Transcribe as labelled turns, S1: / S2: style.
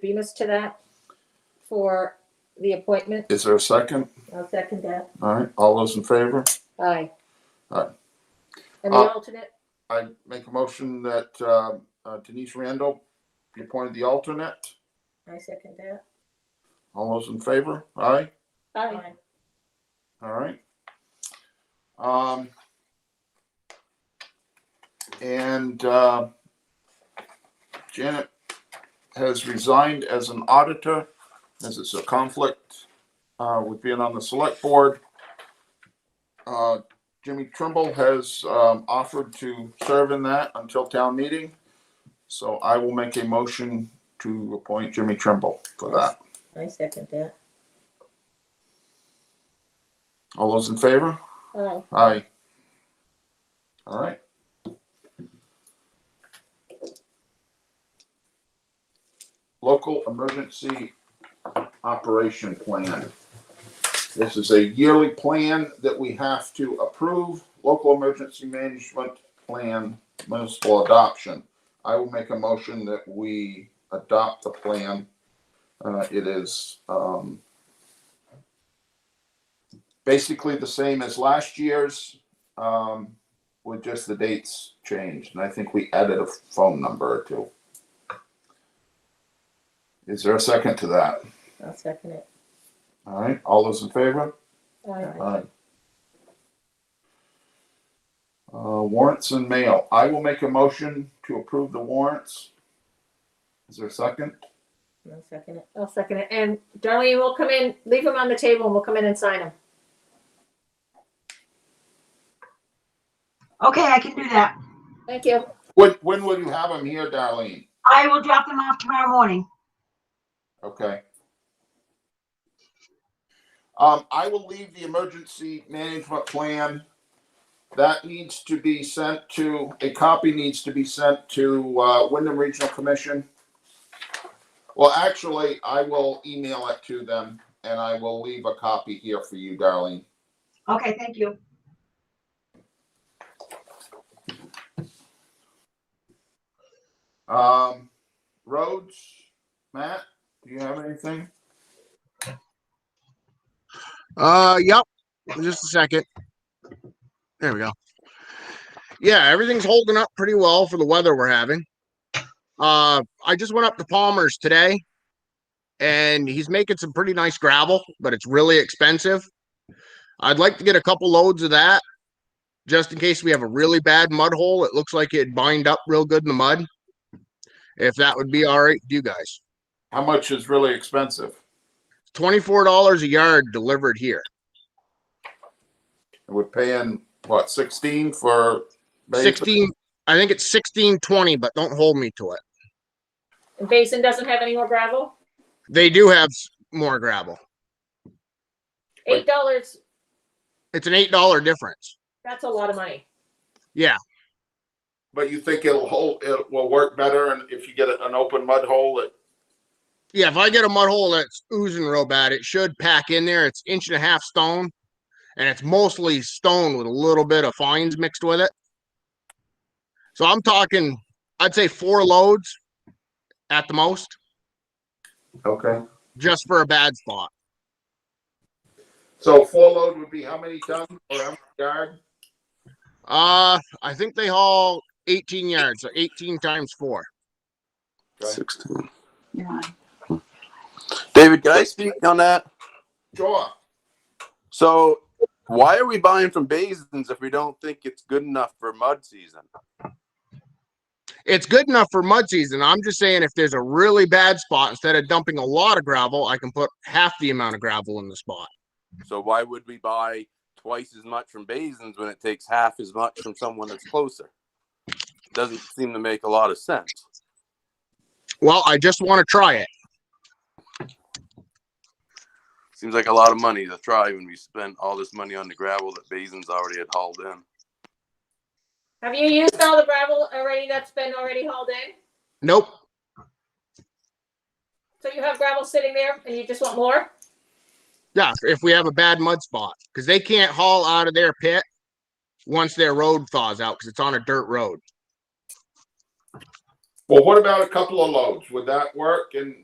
S1: Bemis to that for the appointment.
S2: Is there a second?
S1: I'll second that.
S2: All right, all those in favor?
S1: Aye.
S2: Aye.
S1: And the
S2: Uh,
S1: alternate,
S2: I make a motion that uh, uh, Denise Randall be appointed the alternate.
S3: I second that.
S2: All those in favor? Aye,
S1: aye.
S2: all right. Um, and uh, Janet has resigned as an auditor, as it's a conflict uh, with being on the select board. Uh, Jimmy Trimble has um, offered to serve in that until town meeting. So I will make a motion to appoint Jimmy Trimble for that.
S3: I second that.
S2: All those in favor?
S1: Aye.
S2: Aye. All right. Local Emergency Operation Plan. This is a yearly plan that we have to approve, local emergency management plan municipal adoption. I will make a motion that we adopt the plan. Uh, it is, um, basically the same as last year's, um, with just the dates changed, and I think we added a phone number or two. Is there a second to that?
S3: I'll second it.
S2: All right, all those in favor?
S1: Aye.
S2: Aye. Uh, warrants and mail. I will make a motion to approve the warrants. Is there a second?
S3: I'll second it.
S1: I'll second it. And Darlene, we'll come in, leave them on the table and we'll come in and sign them.
S4: Okay, I can do that.
S1: Thank you.
S2: When, when will you have them here, Darlene?
S4: I will drop them off tomorrow morning.
S2: Okay. Um, I will leave the emergency management plan. That needs to be sent to, a copy needs to be sent to, uh, Wyndham Regional Commission. Well, actually, I will email it to them and I will leave a copy here for you, Darlene.
S4: Okay, thank you.
S2: Um, roads, Matt, do you have anything?
S5: Uh, yep. Just a second. There we go. Yeah, everything's holding up pretty well for the weather we're having. Uh, I just went up to Palmer's today and he's making some pretty nice gravel, but it's really expensive. I'd like to get a couple loads of that just in case we have a really bad mud hole. It looks like it'd bind up real good in the mud. If that would be all right with you guys.
S2: How much is really expensive?
S5: $24 a yard delivered here.
S2: We're paying, what, sixteen for? basic?
S5: 16 i think it's 1620 but don't hold me to it
S1: And Basin doesn't have any more gravel?
S5: they do have s- more gravel
S2: Wait.
S1: Eight dollars,
S5: it's an eight dollar difference
S1: that's a lot of money.
S5: yeah
S2: But you think it'll hold, it will work better and if you get a- an open mud hole, it,
S5: yeah if i get a mud hole that's oozing real bad it should pack in there it's inch and a half stone and it's mostly stone with a little bit of fines mixed with it so i'm talking i'd say four loads at the most
S2: okay.
S5: just for a bad spot
S2: So four load would be how many tons or how much yard?
S5: uh i think they haul 18 yards so 18 times four
S6: 16. Hmm. David, can I speak on that?
S2: Sure.
S6: So, why are we buying from Basins if we don't think it's good enough for mud season?
S5: it's good enough for mud season. I'm just saying if there's a really bad spot, instead of dumping a lot of gravel, I can put half the amount of gravel in the spot.
S6: So, why would we buy twice as much from Basins when it takes half as much from someone that's closer? Doesn't seem to make a lot of sense.
S5: Well, I just want to try it.
S6: Seems like a lot of money to try when we spent all this money on the gravel that Basins already had hauled in.
S1: Have you used all the gravel already that's been already hauled in?
S5: Nope.
S1: So you have gravel sitting there and you just want more?
S5: Yeah, if we have a bad mud spot, because they can't haul out of their pit once their road thaws out because it's on a dirt road.
S2: Well, what about a couple of loads? Would that work? And